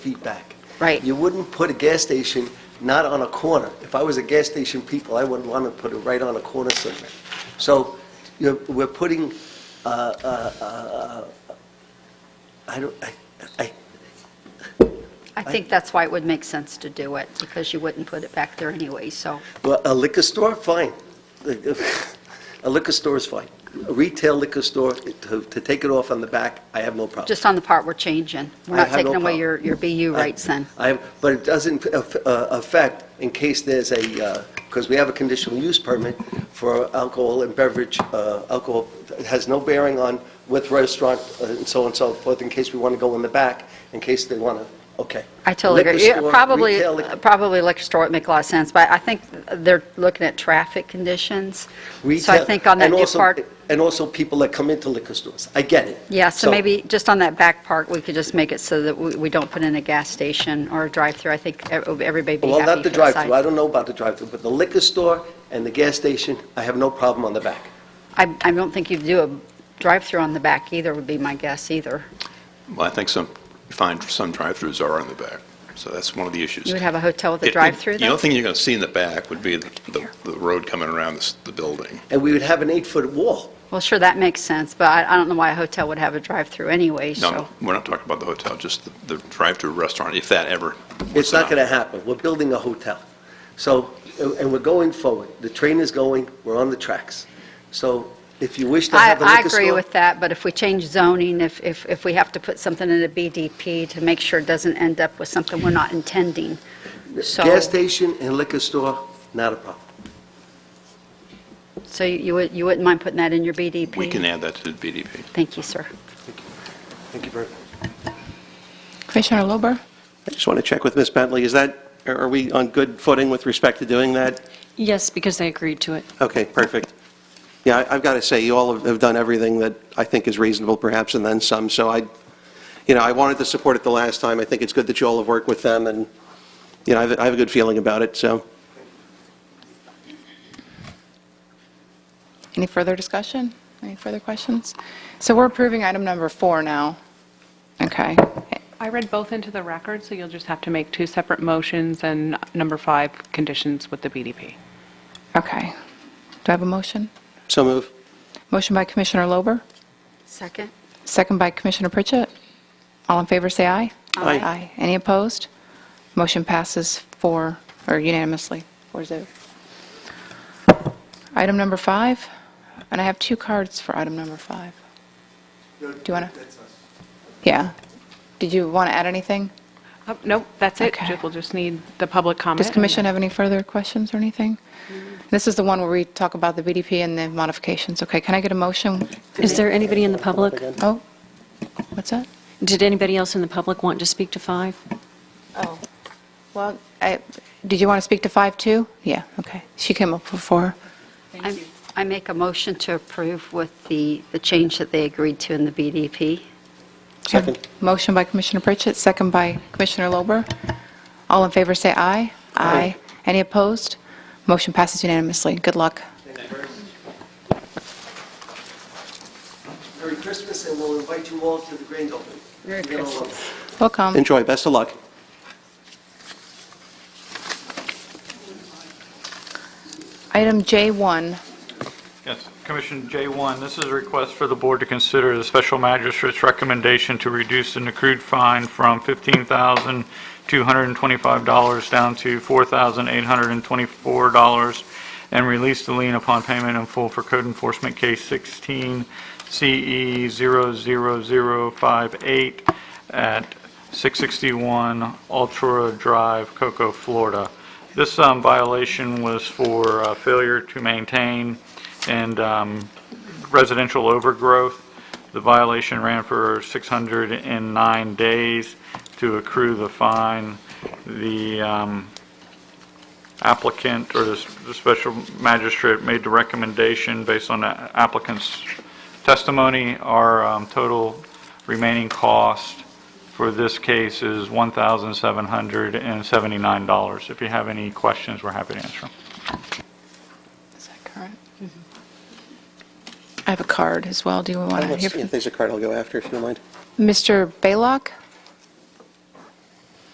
feet back. Right. You wouldn't put a gas station not on a corner. If I was a gas station people, I wouldn't want to put it right on a corner somewhere. So you're, we're putting, uh, uh, uh, I don't, I, I, I think that's why it would make sense to do it, because you wouldn't put it back there anyway, so, well, a liquor store, fine. A liquor store is fine. A retail liquor store, to, to take it off on the back, I have no problem. just on the part we're changing. We're I not have no taking away problem. your, your BU rights then. I, but it doesn't aff- uh, affect, in case there's a, because we have a conditional use permit for alcohol and beverage, uh, alcohol, it has no bearing on with restaurant uh, and so on and so forth, in case we want to go in the back, in case they want to, okay. I totally agree. Liquor Yeah, store, Probably, uh, retail liquor- probably liquor store would make a lot of sense, but I think they're looking at traffic conditions. So I retail- think on that and new also- part, And also people that come into liquor stores. I get it. yeah, so maybe just on that back part, we could just make it so that we we don't put in a gas station or a drive-through. I think ev- everybody'd be happy. Well, not the for that drive-through. I side. don't know about the drive-through, but the liquor store and the gas station, I have no problem on the back. I, I don't think you'd do a drive-through on the back either, would be my guess either. Well, I think some, you find some drive-throughs are on the back, so that's one of the issues. You would have a hotel with It- a it- drive-through The though? only thing you're going to see in the back would be the, the- the road coming around this- the building. And we would have an eight-foot wall. Well, sure, that makes sense, but I I don't know why a hotel would have a drive-through anyway, No, so. No, we're not talking about the hotel, just the- the drive-through restaurant, if that ever. It's not going to to. happen. We're building a hotel. So, and and we're going forward. The train is going, we're on the tracks. So if you wish to I have a I liquor agree store, with that, but if we change zoning, if if if we have to put something in a BDP to make sure it doesn't end up with something we're not intending, so, gas station and liquor store, not a problem. so you you would- you wouldn't mind putting that in your BDP? We can add that to the BDP. Thank you, sir. Thank you very much. Commissioner Lober? I just want to check with Ms. Bentley, is that, are are we on good footing with respect to doing that? Yes, because they agreed to it. Okay, perfect. Yeah, I- I've got to say, you all have- have done everything that I think is reasonable, perhaps, and then some, so I, you know, I wanted to support it the last time, I think it's good that you all have worked with them, and, you know, I have I have a good feeling about it, so. Any further discussion? Any further questions? So we're approving item number four now. Okay. I read both into the record, so you'll just have to make two separate motions and number five, conditions with the BDP. Okay. Do I have a motion? So move. Motion by Commissioner Lober, Second? second by Commissioner Pritchett. All in favor, say aye. Aye. Aye. Any opposed? Motion passes four, or unanimously, four zero. Item number five, and I have two cards for item number five. Do you want to? Yeah. Did you want to add anything? Uh, Nope, that's it. Okay. Ju- We'll just need the public comment. Does and Commission have any further questions or anything? This is the one where we talk about the BDP and the modifications. Okay, can I get a motion? Is there anybody in the public? Oh, what's that? Did anybody else in the public want to speak to five? Oh, well, I- did you want to speak to 5 too? Yeah, okay. She came up before. I- I make a motion to approve with the the change that they agreed to in the BDP. Second. Motion by Commissioner Pritchett, second by Commissioner Lober. All in favor, say aye. Aye. Any opposed? Motion passes unanimously. Good luck. Merry Christmas, and we'll invite you all to the grand opening. Merry You're gonna love it. Christmas. Welcome. Enjoy, best of luck. Item J1, Yes, Commission J1, this is a request for the board to consider the special magistrate's recommendation to reduce an accrued fine from $15,225 down to $4,824 and release the lien upon payment in full for code enforcement case E 16 CE 00058 at 661 Altura Drive, Cocoa, Florida. This um, violation was for uh, failure to maintain and um, residential overgrowth. The violation ran for 609 days to accrue the fine. The um, applicant, or the s- the special magistrate, made the recommendation based on the applicant's testimony. Our um, total remaining cost for this case is $1,779. If you have any questions, we're happy to answer them. Is that current? I have a card as well. Do you want to hear If from? there's a card, I'll go after, if you don't mind. Mr. Baylock?